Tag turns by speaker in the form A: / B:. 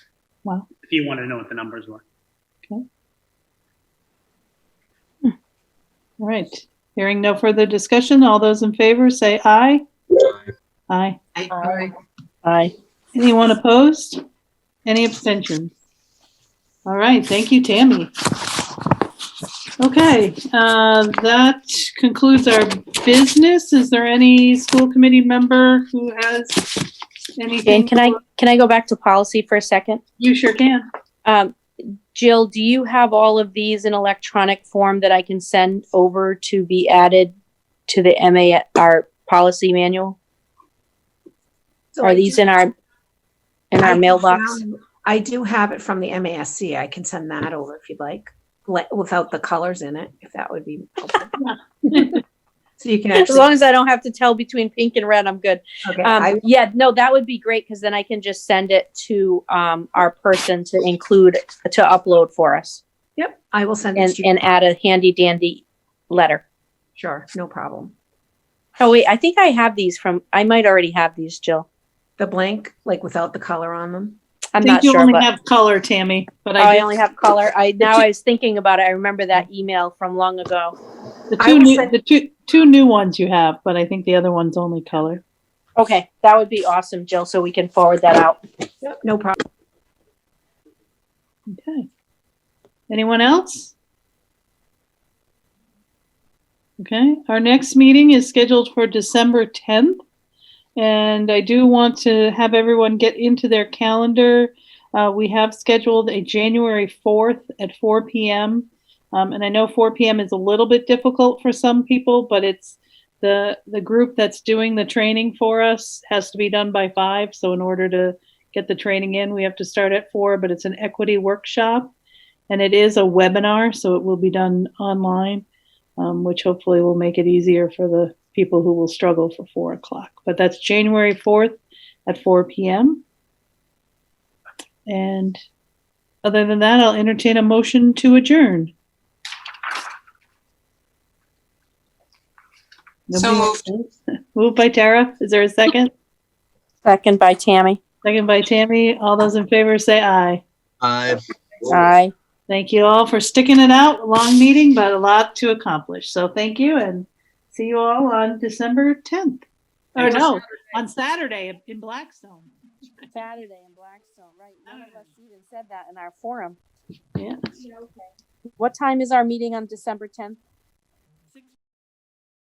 A: Wow.
B: if you want to know what the numbers were.
A: All right. Hearing no further discussion, all those in favor say aye. Aye.
C: Aye.
D: Aye.
A: Anyone opposed? Any abstentions? All right, thank you, Tammy. Okay, uh, that concludes our business. Is there any school committee member who has anything?
D: Jane, can I, can I go back to policy for a second?
A: You sure can.
D: Um, Jill, do you have all of these in electronic form that I can send over to be added to the MA, our policy manual?
C: So I
D: Are
C: do-
D: these in our, in
C: I
D: our
C: do
D: mailbox?
C: have- I do have it from the MASC. I can send that over if you'd like, le- without the colors in it, if that would be helpful. So you can
D: As
C: actually,
D: long as I don't have to tell between pink and red, I'm good.
C: okay, I
D: Um, yeah, no, that would be great because then I can just send it to, um, our person to include, to upload for us
C: Yep, I will send
D: and,
C: it to you.
D: and add a handy dandy letter.
C: Sure, no problem.
D: Oh, wait, I think I have these from, I might already have these, Jill.
C: The blank, like without the color on them.
D: I'm
A: I
D: not
A: think you
D: sure,
A: only
D: but Oh,
A: have color, Tammy, but
D: I
A: I
D: only have color. I, now I was thinking about it. I remember that email from long ago.
A: the
C: I
A: two
C: will
A: new,
C: send-
A: the two, two new ones you have, but I think the other one's only color.
D: Okay, that would be awesome, Jill, so we can forward that out.
C: Yep, no problem.
A: Okay. Anyone else? Okay, our next meeting is scheduled for December 10th. And I do want to have everyone get into their calendar. Uh, we have scheduled a January 4th at 4 PM. Um, and I know 4 PM is a little bit difficult for some people, but it's the, the group that's doing the training for us has to be done by five. So in order to get the training in. We have to start at four, but it's an equity workshop and it is a webinar, so it will be done online, um, which hopefully will make it easier for the people who will struggle for four o'clock. But that's January 4th at 4 p.m. And other than that, I'll entertain a motion to adjourn.
E: So moved.
A: Moved by Tara. Is there a second?
D: Second by Tammy.
A: Second by Tammy. All those in favor say aye.
F: Aye.
D: Aye.
A: Thank you all for sticking it out. Long meeting, but a lot to accomplish. So thank you and see you all on December 10th. Or
B: And
A: no, on Saturday in Blackstone.
D: Saturday in Blackstone, right. None of us even said that in our forum.
A: Yeah.
D: What time is our meeting on December tenth?